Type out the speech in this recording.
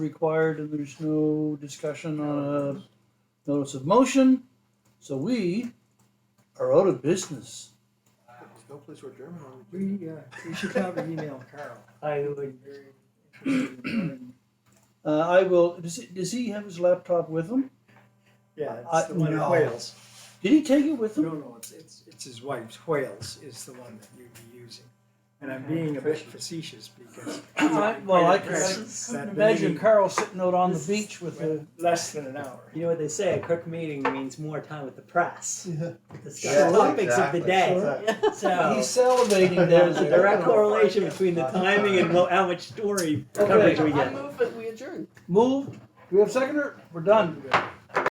required and there's no discussion on a notice of motion. So we are out of business. There's no place where German on the We, uh, we should probably email Carl. I would. Uh, I will, does he, does he have his laptop with him? Yeah, I- it's the one in no. Wales. Did he take it with Uh, No, him? no, it's, it's, it's his wife's. Wales is the one that you'd be using. And I'm being a bit facetious because. I- well, I can- I can Imagine Carl sitting out on the This- beach with a, Less than an hour. You know what they say, a quick meeting means more time with the press. Discuss Sure. topics of the day. Exactly. he's So salivating down there's a there. direct correlation between the timing and mo- how much story Okay. coverage we I get. move that we adjourn. Moved, do we have a seconder? We're done.